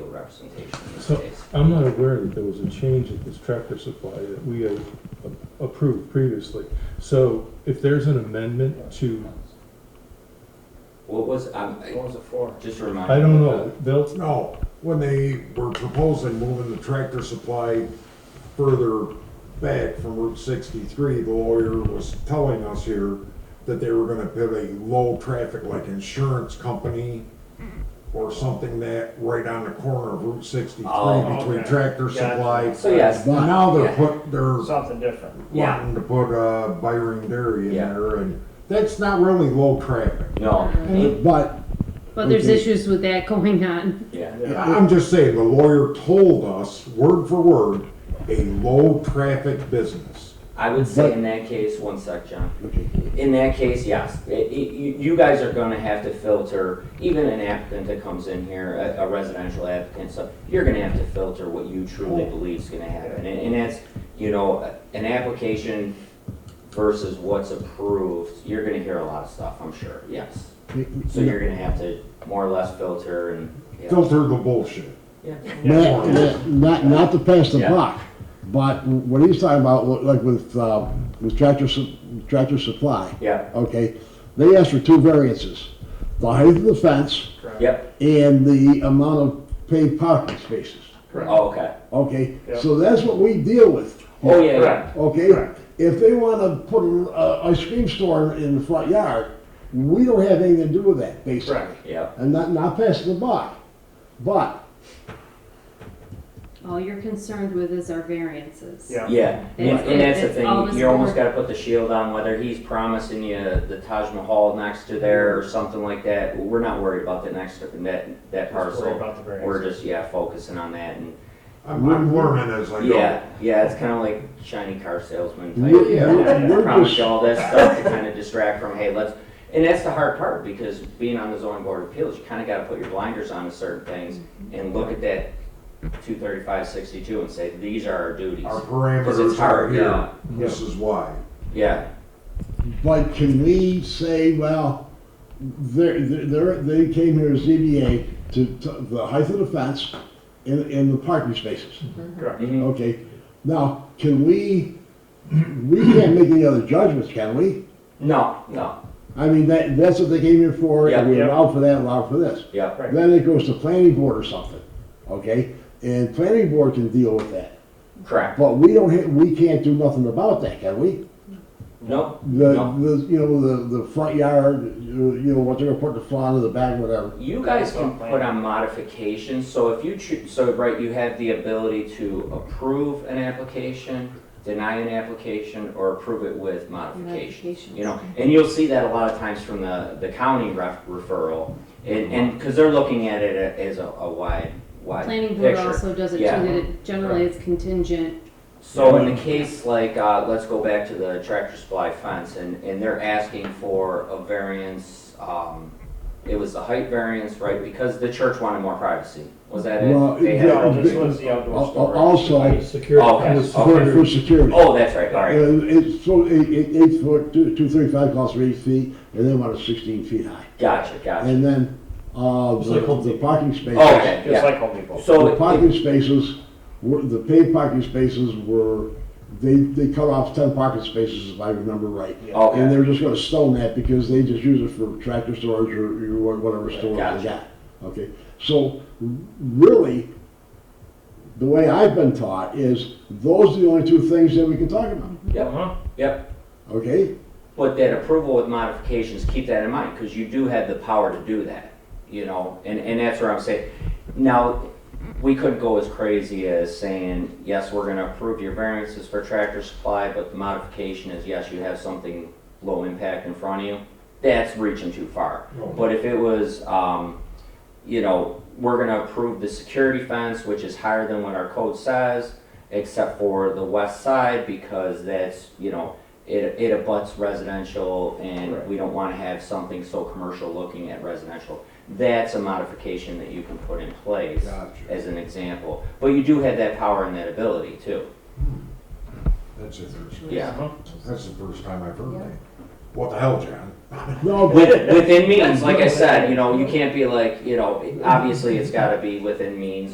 representation in this So- case. I'm not aware that there was a change at this tractor supply that we had a- approved previously. So if there's an amendment to, What was, um, What was it for? just a reminder. I don't what know, Bill, No, when they were proposing moving the tractor supply further back from Route sixty-three, the lawyer was telling us here that they were gonna put a low traffic, like insurance company Mm-hmm. or something that, right on the corner of Route Oh, sixty-three okay. between tractor Gotcha. supply. the- So yes, Well, Now yeah. they're put, they're Something different. Yeah. wanting to put uh Byron Dairy in Yeah. there, and that's not really low traffic. no, Mm-hmm. it- But But there's Okay. issues with that going on. yeah, I'm just saying, the lawyer told us, word for word, a low-traffic business. I would say in that case, one sec, John. In that case, yes, It- it- you, you guys are gonna have to filter, even an applicant that comes in here, a, a residential applicant, so you're gonna have to filter what you truly believe is gonna happen, and, and that's, you know, an application versus what's approved, you're gonna hear a lot of stuff, I'm sure, yes. So you're gonna have to more or less filter and, yeah. Filter the bullshit. Not, not, not to pass the Yeah. buck, but what he's talking about, like with, uh, with Tractor, Su- Tractor Supply, Yeah, okay? They asked for two variances, the height of the fence yep, and the amount of paved parking spaces, oh, okay, okay? Yeah. So that's what we deal with. oh, yeah, yeah. Correct. Okay? If they wanna put a, a ice cream store in the front yard, we don't have anything to do with that, basically. Correct. Yep, And not, not passing the buck, but All you're concerned with is our variances. Yeah. yeah, and, It's- and that's the it's all thing, this you almost over- gotta put the shield on, whether he's promising you the Taj Mahal next to there or something like that, we're not worried about that next, that, that Just worry parcel. about the variance. We're just, yeah, focusing on that and, I'm, I'm learning as I go. Mm-hmm. yeah, yeah, it's kinda like shiny car salesman we, we- type. yeah. we're Promise just- you all that stuff to kinda distract from, hey, let's, and that's the hard part, because being on the zoning board of appeals, you kinda gotta put your blinders on to certain things and look at that two thirty-five sixty-two and say, these are our duties. Our Because it's parameters are hard, yeah. here. This is why. Yeah, But can we say, well, they're, they're, they came here as ZBA to, to the height of the fence and, and the parking spaces, Correct. Mhm. okay? Now, can we, we can't make any other judgments, can we? No, no, I mean, that, that's what they came here for, and we Yeah, yeah. allow for that, allow for this. yeah, Right. Then it goes to planning board or something, okay? And planning board can deal with that, correct. but we don't, ha- we can't do nothing about that, can we? No, The, no. the, you know, the, the front yard, you you know, what they're gonna put in the front or the back, whatever. You guys can put on modifications, so if you choose, so right, you have the ability to approve an application, deny an application, or approve it with modification. Modifications. You know, and you'll see that a lot of times from the, the county ref- referral, and, and, because they're looking at it a- as a, a wide, wide Planning board picture. also does it too, Yeah. that it generally is contingent. So in the case like, uh, let's go back to the tractor supply fence, and, and they're asking for a variance, um, it was the height variance, right, because the church wanted more privacy, was that it? Well, They had yeah, a- This was the Al- outdoor al- storage. Also, security. Oh, okay. and the for, for security- security. Oh, that's right, all right, Uh, It's, so, eight, eight- eight foot, two, two thirty-five calls for eight feet, and then one is sixteen feet high. gotcha, gotcha. And then, uh, It's like the, Home the Depot. parking spaces. Oh, okay, Just yeah. like Home Depot. The So, parking spaces, were, the paid parking spaces were, they, they cut off ten parking spaces, if I remember right. And okay, they're just gonna stone that because they just use it for tractor storage or or wha- whatever storage Gotcha. they got. Okay, so r- really, the way I've been taught is those are the only two things that we can talk about, Uh-huh. yep. okay? But that approval with modifications, keep that in mind, because you do have the power to do that, you know, and, and that's where I'm saying. Now, we couldn't go as crazy as saying, yes, we're gonna approve your variances for tractor supply, but the modification is, yes, you have something low impact in front of you. That's reaching too far. But if it was, um, you know, we're gonna approve the security fence, which is higher than what our code says, except for the west side, because that's, you know, it, it abuts residential, and we don't wanna have something so commercial looking at residential. That's a modification that you can put in place Gotcha. as an example. But you do have that power and that ability too. That's interesting. Yeah. That's the first time I've heard that. What the hell, John? No, but, With, within means, like I said, you know, you can't be like, you know, obviously it's gotta be within means